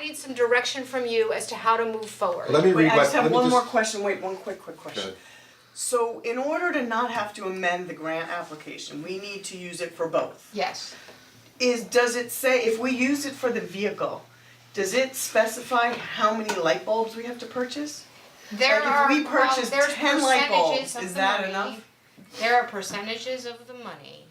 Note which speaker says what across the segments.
Speaker 1: need some direction from you as to how to move forward.
Speaker 2: Let me
Speaker 3: Wait,
Speaker 2: read
Speaker 3: I
Speaker 2: my-
Speaker 3: just
Speaker 2: let
Speaker 3: have
Speaker 2: me
Speaker 3: one
Speaker 2: just-
Speaker 3: more question, wait, one quick, quick question.
Speaker 2: Okay.
Speaker 3: So in order to not have to amend the grant application, we need to use it for both.
Speaker 1: Yes.
Speaker 3: Is, does it say, if we use it for the vehicle, does it specify how many light bulbs we have to purchase?
Speaker 1: There
Speaker 3: Like, if
Speaker 1: are,
Speaker 3: we
Speaker 1: well,
Speaker 3: purchase
Speaker 1: there's
Speaker 3: 10 light bulbs,
Speaker 1: percentages of
Speaker 3: is
Speaker 1: the
Speaker 3: that
Speaker 1: money.
Speaker 3: enough? Mm-hmm.
Speaker 1: There are percentages of the money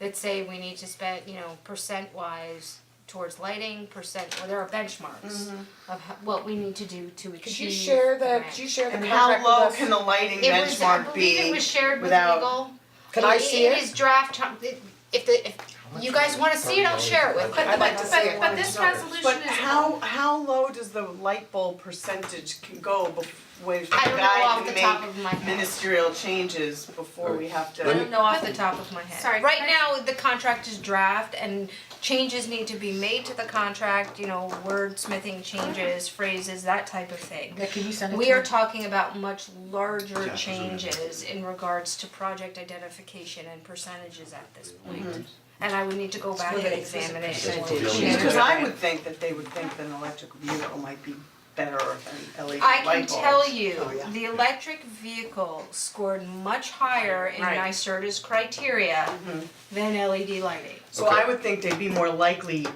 Speaker 1: that say we need to spend, you know, percent wise towards lighting, percent, or there are benchmarks
Speaker 3: Mm-hmm.
Speaker 1: of ho- what we need to do to achieve.
Speaker 4: Could you share
Speaker 1: the
Speaker 4: the,
Speaker 1: grant.
Speaker 4: could you share the
Speaker 3: And how
Speaker 4: contract with
Speaker 3: low
Speaker 4: us?
Speaker 3: can the lighting
Speaker 1: It was, I
Speaker 3: benchmark
Speaker 1: believe it
Speaker 3: be
Speaker 1: was shared with
Speaker 3: without-
Speaker 1: legal.
Speaker 4: Can I see
Speaker 1: It
Speaker 4: it?
Speaker 1: is draft, time- it- if the, if you guys wanna see it, I'll share it with you.
Speaker 4: I'd like to see it.
Speaker 5: But but this
Speaker 3: But
Speaker 5: resolution is
Speaker 3: how, how low does the light bulb percentage can go bef- when the
Speaker 1: I don't know off
Speaker 3: guy
Speaker 1: the top
Speaker 3: can
Speaker 1: of my
Speaker 3: make
Speaker 1: head.
Speaker 3: ministerial changes before we have to?
Speaker 1: I don't know off the top of my head.
Speaker 5: Sorry,
Speaker 1: Right
Speaker 5: can I-
Speaker 1: now, the contract is draft and changes need to be made to the contract, you know, wordsmithing changes, phrases, that type of thing.
Speaker 4: can you send
Speaker 1: We are talking about much larger
Speaker 2: Yeah,
Speaker 1: changes in regards to project identification and percentages at this point. And I would need to go back and examine it in more
Speaker 2: percentage.
Speaker 1: detail.
Speaker 3: Because I would think that they would think that an electric vehicle might be better than LED
Speaker 1: I
Speaker 3: light
Speaker 1: can
Speaker 3: bulbs.
Speaker 1: tell you,
Speaker 3: Oh, yeah.
Speaker 1: the electric vehicle scored much higher in
Speaker 5: Right. Mm-hmm.
Speaker 1: NYSERDA's criteria than LED lighting.
Speaker 3: So I would think they'd be more likely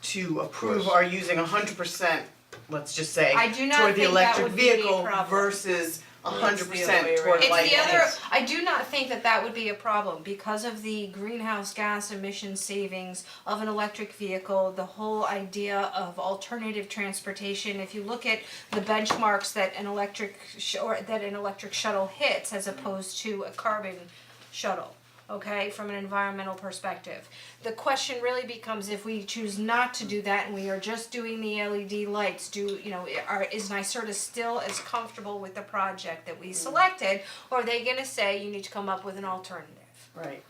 Speaker 3: to approve
Speaker 2: Yes.
Speaker 3: or using hundred percent, let's just say,
Speaker 1: I do not
Speaker 3: toward the
Speaker 1: think that
Speaker 3: electric
Speaker 1: would be a
Speaker 3: vehicle
Speaker 1: problem.
Speaker 3: versus hundred
Speaker 5: It's the other way
Speaker 3: percent toward
Speaker 5: around.
Speaker 3: light
Speaker 1: It's
Speaker 3: bulbs.
Speaker 1: the other, I do not think that that would be a problem because of the greenhouse gas emission savings of an electric vehicle, the whole idea of alternative transportation. If you look at the benchmarks that an electric sh- or that an electric shuttle hits as opposed to a carbon shuttle, okay, from an environmental perspective. The question really becomes if we choose not to do that and we are just doing the LED lights, do, you know, are, is NYSERDA still as comfortable with the project that we selected? Or are they gonna say you need to come up with an alternative?
Speaker 3: Right.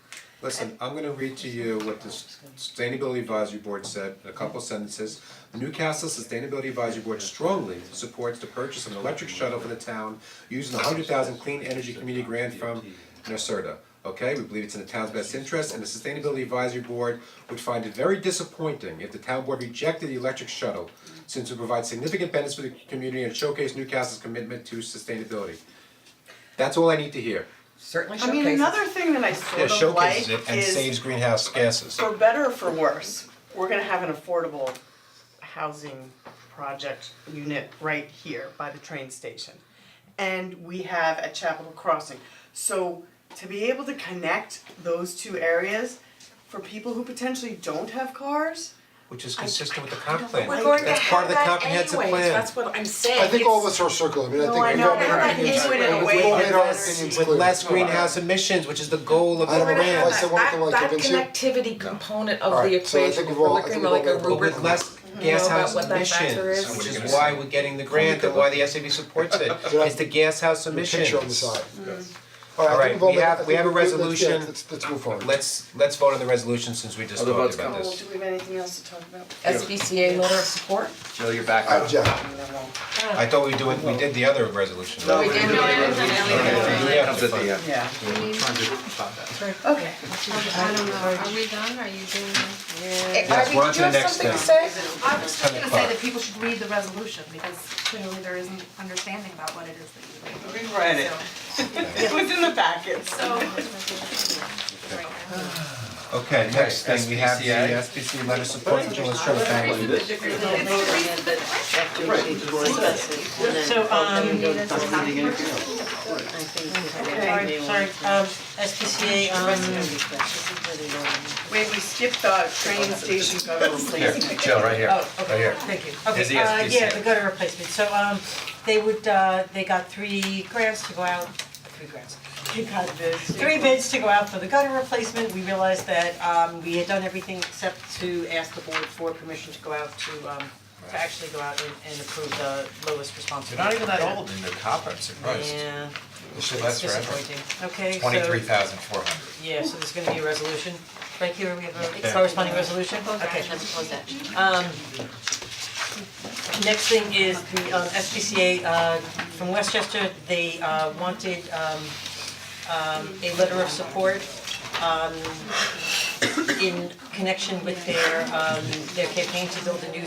Speaker 2: Listen, I'm gonna read to you what the Sustainability Advisory Board said, in a couple sentences. The Newcastle Sustainability Advisory Board strongly supports the purchase of an electric shuttle for the town using the hundred thousand clean energy community grant from NYSERDA. Okay, we believe it's in the town's best interest and the Sustainability Advisory Board would find it very disappointing if the town board rejected the electric shuttle since it provides significant benefits for the community and showcase Newcastle's commitment to sustainability. That's all I need to hear.
Speaker 4: Certainly
Speaker 3: I mean, another thing that I
Speaker 2: Yeah,
Speaker 3: sort of like
Speaker 2: showcases it and saves
Speaker 3: is,
Speaker 2: greenhouse gases.
Speaker 3: for better or for worse, we're gonna have an affordable housing project unit right here by the train station. And we have at Chapel Crossing. So to be able to connect those two areas for people who potentially don't have cars,
Speaker 2: Which is consistent with the comp plan,
Speaker 4: We're going to
Speaker 2: that's part
Speaker 4: have
Speaker 2: of the
Speaker 4: that
Speaker 2: comprehensive plan.
Speaker 4: anyways, that's what I'm saying.
Speaker 6: I think all of
Speaker 4: It's-
Speaker 6: us are circling, I mean, I
Speaker 3: No,
Speaker 6: think
Speaker 3: I
Speaker 6: we've
Speaker 3: know,
Speaker 6: all made
Speaker 3: but
Speaker 6: our
Speaker 3: I
Speaker 6: opinions,
Speaker 3: think
Speaker 6: we've
Speaker 3: in a way
Speaker 6: all made our
Speaker 3: that's-
Speaker 6: opinions
Speaker 2: With
Speaker 6: clear.
Speaker 2: less greenhouse emissions, which is the goal of the
Speaker 6: I don't
Speaker 2: plan.
Speaker 6: know if I said one thing like
Speaker 4: That that
Speaker 6: convince you.
Speaker 4: connectivity component
Speaker 6: All
Speaker 4: of
Speaker 6: right,
Speaker 4: the
Speaker 6: so I
Speaker 4: equation,
Speaker 6: think
Speaker 4: if
Speaker 6: we've
Speaker 4: we're
Speaker 6: all- I
Speaker 4: looking
Speaker 6: think we've
Speaker 4: like
Speaker 6: all
Speaker 4: a
Speaker 6: got a little
Speaker 4: rubric
Speaker 6: bit
Speaker 2: With less gas
Speaker 4: know
Speaker 2: house
Speaker 4: about what that factor
Speaker 2: emissions,
Speaker 4: is?
Speaker 2: which is why we're getting the grant and why the SAB supports it, it's the gas house emissions.
Speaker 6: Picture on the side.
Speaker 2: All
Speaker 6: All
Speaker 2: right,
Speaker 6: right, I think we've all
Speaker 2: we
Speaker 6: made- I
Speaker 2: have- we
Speaker 6: think
Speaker 2: have a
Speaker 6: we've- let's- yeah,
Speaker 2: resolution.
Speaker 6: Let's, let's move forward.
Speaker 2: Let's, let's vote on the resolution since we just
Speaker 7: Other
Speaker 2: talked
Speaker 7: votes
Speaker 2: about
Speaker 7: come.
Speaker 2: this.
Speaker 3: well, Oh, do we have anything else to talk about?
Speaker 4: SBCA letter of support.
Speaker 7: Jill, you're back
Speaker 6: Uh,
Speaker 7: up.
Speaker 6: Jeff,
Speaker 3: I mean, I won't.
Speaker 2: I thought we doing, we did the other resolution.
Speaker 6: No,
Speaker 4: We did
Speaker 7: It comes at the end.
Speaker 3: Yeah.
Speaker 4: Okay.
Speaker 1: I don't know, are we done, are you doing?
Speaker 2: Yes, we're on to the next
Speaker 4: Do you
Speaker 2: thing.
Speaker 4: have something to say?
Speaker 5: I was just
Speaker 2: Ten
Speaker 5: gonna say
Speaker 2: o'clock.
Speaker 5: that people should read the resolution because clearly there isn't understanding about what it is that you
Speaker 3: We read it. It was in the packet.
Speaker 5: So,
Speaker 2: Okay, next thing, we have the
Speaker 7: SPCA.
Speaker 2: SPC letter supporting Jill and Sherman family.
Speaker 8: So, um, sorry, sorry, um, SPCA, um,
Speaker 3: Wait, we skipped the train station gutter replacement.
Speaker 7: Jill, right here.
Speaker 8: oh, okay.
Speaker 7: Right here.
Speaker 8: Thank you.
Speaker 7: Is the
Speaker 8: Okay, uh, yeah,
Speaker 7: SPCA.
Speaker 8: the gutter replacement, so, um, they would, uh, they got three grants to go out, three grants. They got three bids to go out for the gutter replacement, we realized that, um, we had done everything except to ask the board for permission to go out to, um, to actually go out and, and approve the lowest responsible.
Speaker 7: You're not even that old in your copper, I'm surprised.
Speaker 8: Yeah,
Speaker 7: This should last forever.
Speaker 8: disappointing, okay, so.
Speaker 7: Twenty-three thousand four hundred.
Speaker 8: Yeah, so there's gonna be a resolution, right here, we have a corresponding resolution, okay. Um, next thing is the um SPCA uh from Westchester, they uh wanted um um a letter of support um in connection with their um their campaign to build a new